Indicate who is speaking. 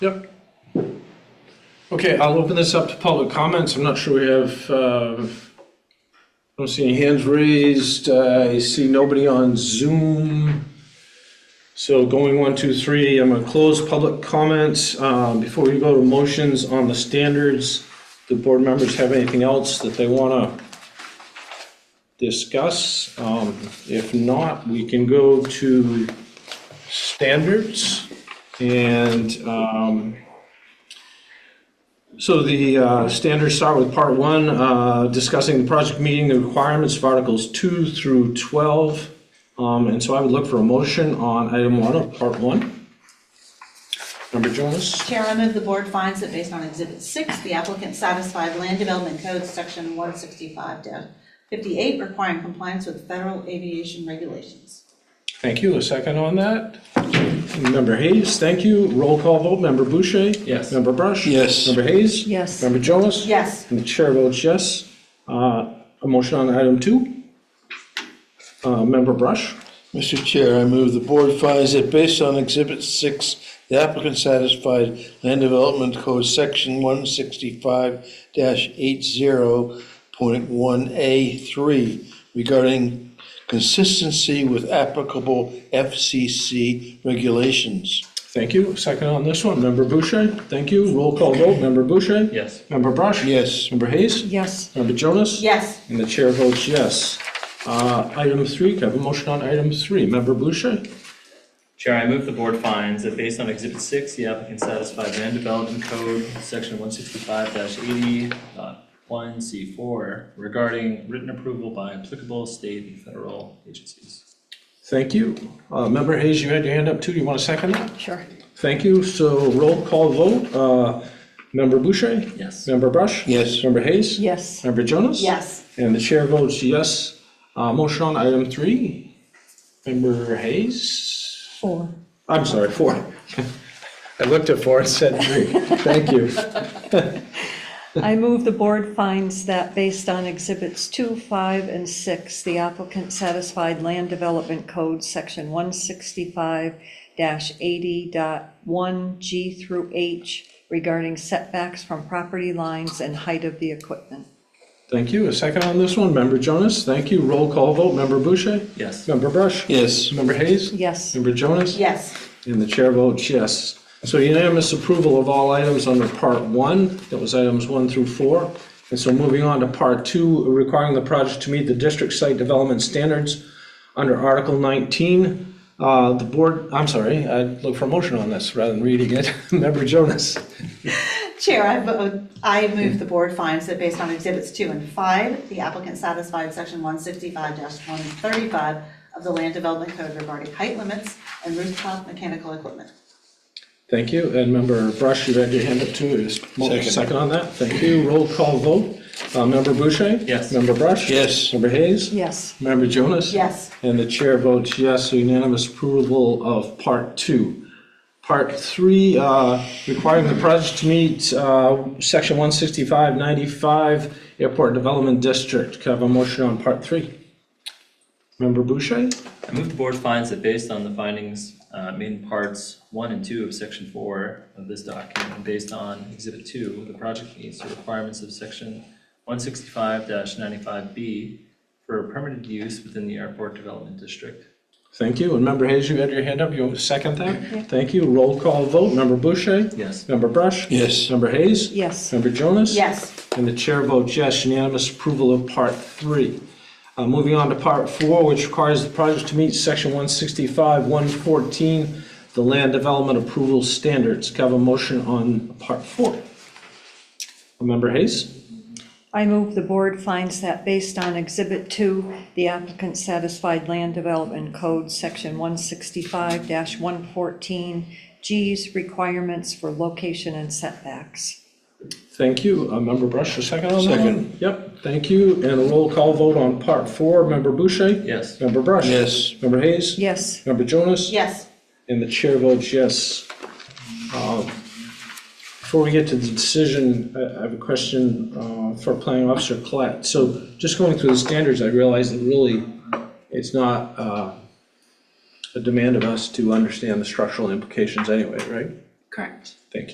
Speaker 1: Yep. Okay, I'll open this up to public comments. I'm not sure we have, um, I don't see any hands raised. I see nobody on Zoom. So going one, two, three, I'm going to close public comments. Um, Before we go to motions on the standards, do board members have anything else that they want to discuss? Um, If not, we can go to standards. And um, so the uh, standards start with part one, uh, discussing the project meeting, the requirements of Articles 2 through 12. Um, And so I would look for a motion on item one of part one. Member Jonas?
Speaker 2: Chairman of the board finds that based on Exhibit 6, the applicant satisfied Land Development Code Section 165-58 requiring compliance with federal aviation regulations.
Speaker 1: Thank you. A second on that? Member Hayes, thank you. Roll call vote. Member Boucher?
Speaker 3: Yes.
Speaker 1: Member Brush?
Speaker 4: Yes.
Speaker 1: Member Hayes?
Speaker 5: Yes.
Speaker 1: Member Jonas?
Speaker 2: Yes,
Speaker 1: And the chair votes yes. Uh, A motion on item two. Uh, Member Brush?
Speaker 4: Mr. Chair, I move the board finds that based on Exhibit 6, the applicant satisfied Land Development Code Section 165-80.1A3 regarding consistency with applicable FCC regulations.
Speaker 1: Thank you. Second on this one, member Boucher, thank you. Roll call vote, member Boucher?
Speaker 3: Yes.
Speaker 1: Member Brush?
Speaker 4: Yes.
Speaker 1: Member Hayes?
Speaker 5: Yes.
Speaker 1: Member Jonas?
Speaker 2: yes,
Speaker 1: And the chair votes yes. Uh, Item three, can I have a motion on item three? Member Boucher?
Speaker 3: Chair, I move the board finds that based on Exhibit 6, the applicant satisfied Land Development Code, Section 165-80.1C4 regarding written approval by applicable state and federal agencies.
Speaker 1: Thank you. Uh, Member Hayes, you had your hand up too. Do you want to second that?
Speaker 5: Sure.
Speaker 1: Thank you. So roll call vote, uh, member Boucher?
Speaker 3: Yes.
Speaker 1: Member Brush?
Speaker 4: Yes.
Speaker 1: Member Hayes?
Speaker 5: Yes.
Speaker 1: Member Jonas?
Speaker 2: yes.
Speaker 1: And the chair votes yes. Uh, Motion on item three, member Hayes?
Speaker 5: Four.
Speaker 1: I'm sorry, four. I looked at four and said three. Thank you.
Speaker 5: I move the board finds that based on exhibits two, five, and six, the applicant satisfied Land Development Code, section one sixty-five eighty G through H regarding setbacks from property lines and height of the equipment.
Speaker 1: Thank you. A second on this one, member Jonas. Thank you. Roll call vote, member Boucher?
Speaker 3: Yes.
Speaker 1: Member Brush?
Speaker 4: Yes.
Speaker 1: Member Hayes?
Speaker 5: Yes.
Speaker 1: Member Jonas?
Speaker 2: Yes,
Speaker 1: And the chair votes yes. So unanimous approval of all items under part one, that was items one through four. And so moving on to part two, requiring the project to meet the district site development standards under Article 19. Uh, The board, I'm sorry, I'd look for a motion on this rather than reading it. Member Jonas?
Speaker 2: Chair, I vote, I move the board finds that based on Exhibits 2 and 5, the applicant satisfied Section 165-135 of the Land Development Code regarding height limits and rooftop mechanical equipment.
Speaker 1: Thank you, and member Brush, you had your hand up too, is
Speaker 4: Second.
Speaker 1: second on that, thank you, roll call vote, uh, member Boucher?
Speaker 3: Yes.
Speaker 1: Member Brush?
Speaker 4: Yes.
Speaker 1: Member Hayes?
Speaker 5: Yes.
Speaker 1: Member Jonas?
Speaker 2: Yes,
Speaker 1: And the chair votes yes, so unanimous approval of part two. Part three, uh, requiring the project to meet, uh, section one sixty-five ninety-five Airport Development District, Can I have a motion on part three? Member Boucher?
Speaker 3: I move the board finds that based on the findings uh, made in parts one and two of section four of this document, and based on exhibit two, the project meets the requirements of section one sixty-five ninety-five B for permitted use within the airport development district.
Speaker 1: Thank you, and member Hayes, you had your hand up, you want to second that? Thank you, roll call vote, member Boucher?
Speaker 3: Yes.
Speaker 1: Member Brush?
Speaker 4: Yes.
Speaker 1: Member Hayes?
Speaker 5: Yes.
Speaker 1: Member Jonas?
Speaker 2: yes.
Speaker 1: And the chair votes yes, unanimous approval of part three. Uh, Moving on to part four, which requires the project to meet section 165, 114, the land development approval standards. Can I have a motion on part four? Member Hayes?
Speaker 5: I move the board finds that based on Exhibit 2, the applicant satisfied Land Development Code, Section 165-114G's requirements for location and setbacks.
Speaker 1: Thank you. Uh, Member Brush, a second on that? one?
Speaker 4: Second.
Speaker 1: Yep, thank you. And a roll call vote on part four. Member Boucher?
Speaker 3: Yes.
Speaker 1: Member Brush?
Speaker 4: Yes.
Speaker 1: Member Hayes?
Speaker 5: Yes,
Speaker 1: Member Jonas?
Speaker 2: Yes,
Speaker 1: And the chair votes yes. Um, Before we get to the decision, I I have a question uh, for planning officer Collette. So just going through the standards, I realize that really, it's not uh, a demand of us to understand the structural implications anyway, right?
Speaker 6: Correct.
Speaker 1: Thank you.